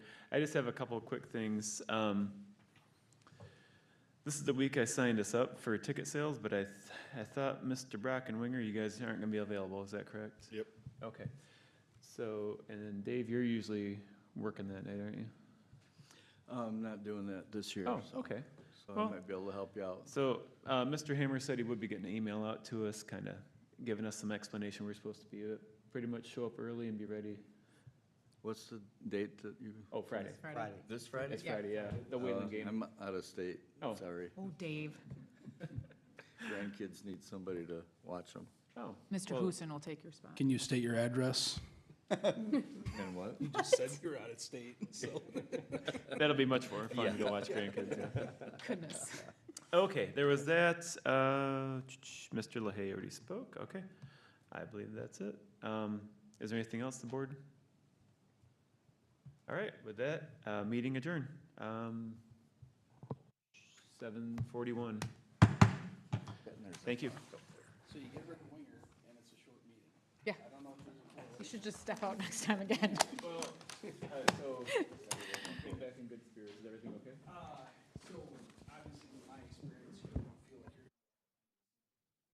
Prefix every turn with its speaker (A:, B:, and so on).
A: I just have a couple of quick things. Um, this is the week I signed us up for ticket sales, but I, th- I thought Mr. Brackenwinger, you guys aren't gonna be available, is that correct?
B: Yep.
A: Okay. So, and then Dave, you're usually working that night, aren't you?
B: I'm not doing that this year,
A: Oh,
B: so-
A: okay.
B: so I
A: well-
B: might be able to help you out.
A: So, uh, Mr. Hammer said he would be getting an email out to us, kind of giving us some explanation. We're supposed to be, uh, pretty much show up early and be ready.
B: What's the date that you?
A: Oh, Friday.
C: Friday.
B: This Friday?
A: It's Friday, yeah. The
B: Uh,
A: Wayland game.
B: I'm out of state,
A: Oh.
B: sorry.
C: Oh, Dave.
B: Grandkids need somebody to watch them.
A: Oh,
C: Mr.
A: well,
C: Huson will take your spot.
D: Can you state your address?
B: And what?
E: just said you're out of state, so.
A: That'll be much more fun to watch grandkids, yeah.
C: Goodness.
A: Okay, there was that. Uh, Mr. LaHaye already spoke. Okay, I believe that's it. Um, is there anything else, the board? All right, with that, uh, meeting adjourned. Um, 7:41. Thank you.
E: So you get Rick Winger, and it's a short meeting.
C: Yeah.
E: I don't know if there's a correlation.
C: You should just step out next time again.
A: Well, so, came back in good spirits. Is everything okay?
E: So